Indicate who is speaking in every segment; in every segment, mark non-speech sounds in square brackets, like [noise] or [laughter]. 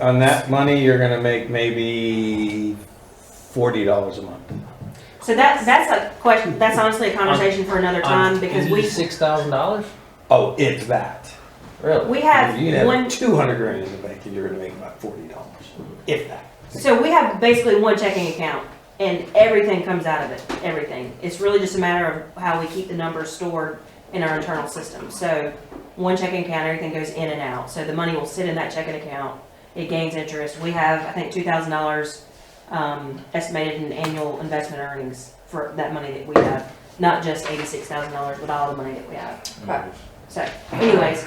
Speaker 1: On that money, you're gonna make maybe forty dollars a month.
Speaker 2: So that, that's a question, that's honestly a conversation for another time because we,
Speaker 3: Um, six thousand dollars.
Speaker 1: Oh, it's that.
Speaker 3: Really?
Speaker 2: we
Speaker 1: You
Speaker 2: have
Speaker 1: have
Speaker 2: one,
Speaker 1: two hundred grand in the bank and you're gonna make about forty dollars, if that.
Speaker 2: so we have basically one checking account and everything comes out of it, everything. It's really just a matter of how we keep the numbers stored in our internal system. So one checking account, everything goes in and out. So the money will sit in that checking account. It gains interest. We have, I think, two thousand dollars, um, estimated in annual investment earnings for that money that we have. Not just eighty-six thousand dollars, but all the money that we have. Right. So anyways,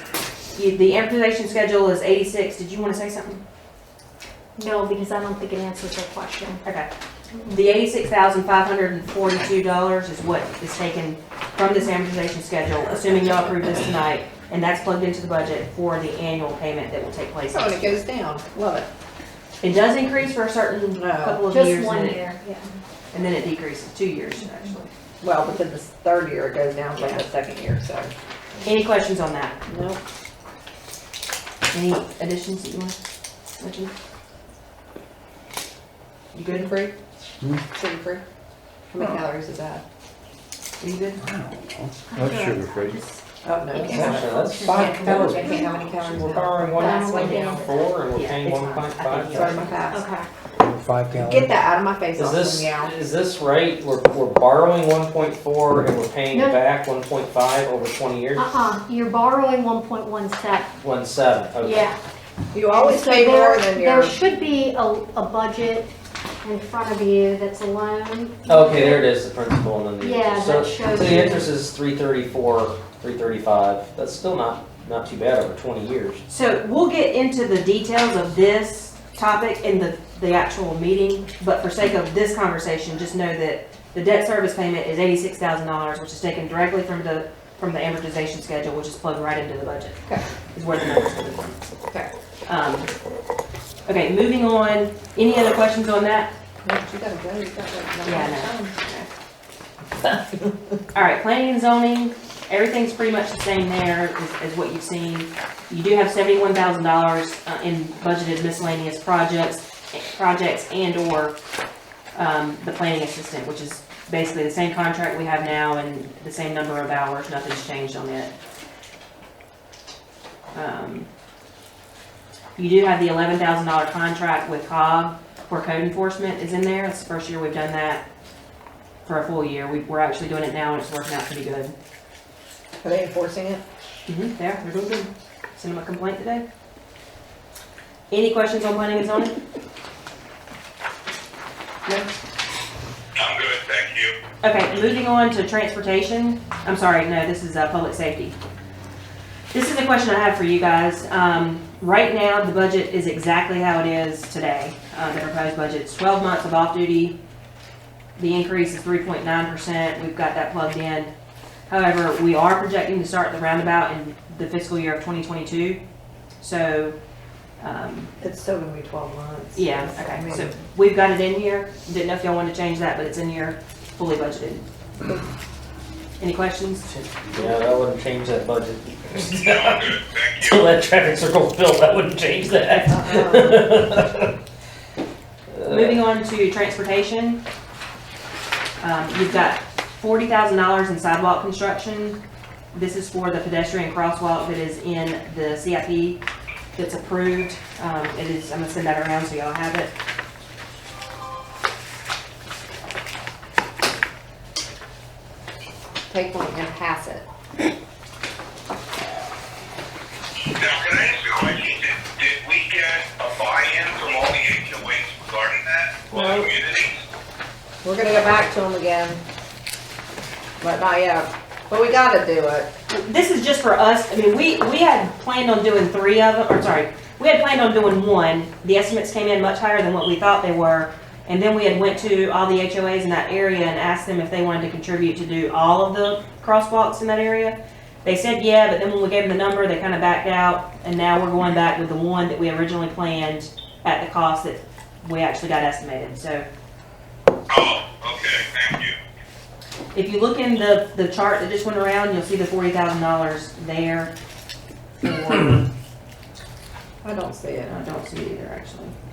Speaker 2: you, the amortization schedule is eighty-six. Did you wanna say something?
Speaker 4: No, because I don't think it answers your question.
Speaker 2: Okay. The eighty-six thousand five hundred and forty-two dollars is what is taken from this amortization schedule, assuming y'all approve this tonight, and that's plugged into the budget for the annual payment that will take place.
Speaker 5: So when it goes down, love it.
Speaker 2: It does increase for a certain
Speaker 5: No.
Speaker 2: couple of years,
Speaker 4: Just
Speaker 2: and
Speaker 4: one
Speaker 2: then,
Speaker 4: year, yeah.
Speaker 2: and then it decreases, two years, actually.
Speaker 5: Well, but then the third year it goes down from the second year, so.
Speaker 2: Any questions on that?
Speaker 5: Nope.
Speaker 2: Any additions that you want to mention? You
Speaker 5: Good
Speaker 2: good?
Speaker 5: and free?
Speaker 3: Hmm?
Speaker 5: Sugar free? How many calories is that?
Speaker 2: Are you good?
Speaker 4: That's sugar-free.
Speaker 5: Oh, no.
Speaker 4: Okay.
Speaker 5: it's
Speaker 3: Actually,
Speaker 5: not.
Speaker 3: that's
Speaker 5: I
Speaker 3: five
Speaker 5: can't-
Speaker 3: calories.
Speaker 5: I can't, how many calories
Speaker 3: We're
Speaker 5: is that?
Speaker 3: borrowing one
Speaker 4: That's what it is.
Speaker 3: four and we're
Speaker 2: Yeah,
Speaker 3: paying
Speaker 2: it's fine.
Speaker 3: one point
Speaker 2: I think
Speaker 3: five.
Speaker 2: you're-
Speaker 5: Sorry, my pass.
Speaker 4: Okay.
Speaker 1: Five
Speaker 5: Get that out of my face,
Speaker 3: Is
Speaker 5: I'll
Speaker 3: this,
Speaker 5: swim you out.
Speaker 3: is this right? We're, we're borrowing one point four and we're paying
Speaker 4: No.
Speaker 3: back one point five over twenty years?
Speaker 2: Uh-huh.
Speaker 4: Uh-uh, you're borrowing one point one seven,
Speaker 3: One seven, okay.
Speaker 4: yeah.
Speaker 5: You always
Speaker 4: So
Speaker 5: pay
Speaker 4: there-
Speaker 5: more than your,
Speaker 4: There should be a, a budget in front of you that's a loan.
Speaker 3: Okay, there it is, the principal and then the
Speaker 4: Yeah,
Speaker 3: interest. So-
Speaker 4: that shows
Speaker 3: So
Speaker 4: you.
Speaker 3: the interest is three thirty-four, three thirty-five. That's still not, not too bad over twenty years.
Speaker 2: So we'll get into the details of this topic in the, the actual meeting, but for sake of this conversation, just know that the debt service payment is eighty-six thousand dollars, which is taken directly from the, from the amortization schedule, which is plugged right into the budget.
Speaker 5: Okay.
Speaker 2: Is where the numbers come from.
Speaker 5: okay.
Speaker 2: Um, Okay, moving on, any other questions on that?
Speaker 5: No, but You gotta go, you got like.
Speaker 2: Yeah, I All right, planning and zoning, everything's pretty much the same there as, as what you've seen. You do have seventy-one thousand dollars uh, in budgeted miscellaneous projects, projects and/or, um, the planning assistant, which is basically the same contract we have now and the same number of hours, nothing's changed on it. Um, You do have the eleven thousand dollar contract with Cobb for code enforcement is in there, it's the first year we've done that for a full year. We, we're actually doing it now and it's working out pretty good.
Speaker 5: Are they enforcing it?
Speaker 2: Mm-hmm, there, they're doing good. Send them a complaint today. Any questions on planning and zoning? No?
Speaker 6: I'm good, thank you.
Speaker 2: Okay, moving on to transportation, I'm sorry, no, this is, uh, public safety. This is a question I have for you guys, um, right now, the budget is exactly how it is today, uh, the proposed budget's twelve months of off-duty. The increase is three point nine percent, we've got that plugged in. However, we are projecting to start the roundabout in the fiscal year of twenty twenty-two, so, um,
Speaker 5: It's still gonna be twelve months.
Speaker 2: yeah,
Speaker 5: Yes, I
Speaker 2: okay,
Speaker 5: mean,
Speaker 2: so we've got it in here, didn't know if y'all wanted to change that, but it's in here, fully budgeted. Any questions?
Speaker 3: Yeah, that wouldn't change that budget.
Speaker 6: I'm good,
Speaker 3: [laughs]
Speaker 6: thank you.
Speaker 3: Till that traffic circle's built, that wouldn't change that.
Speaker 5: uh-uh.
Speaker 2: Moving on to transportation. Um, you've got forty thousand dollars in sidewalk construction. This is for the pedestrian crosswalk that is in the CIP that's approved. Um, it is, I'm gonna send that around so y'all have it.
Speaker 5: Take one and pass it.
Speaker 6: Now, can I ask you a question? Did, did we get a buy-in from all the HOAs regarding that? All
Speaker 5: No.
Speaker 6: communities?
Speaker 5: We're gonna go back to them again. But not yet, but we gotta do it.
Speaker 2: This is just for us, I mean, we, we had planned on doing three of them, or sorry, we had planned on doing one. The estimates came in much higher than what we thought they were. And then we had went to all the HOAs in that area and asked them if they wanted to contribute to do all of the crosswalks in that area. They said yeah, but then when we gave them the number, they kind of backed out. And now we're going back with the one that we originally planned at the cost that we actually got estimated. So
Speaker 6: Oh, okay, thank you.
Speaker 2: if you look in the, the chart that just went around, you'll see the forty thousand dollars there for
Speaker 7: I don't see it, I don't
Speaker 5: I don't see it either, actually.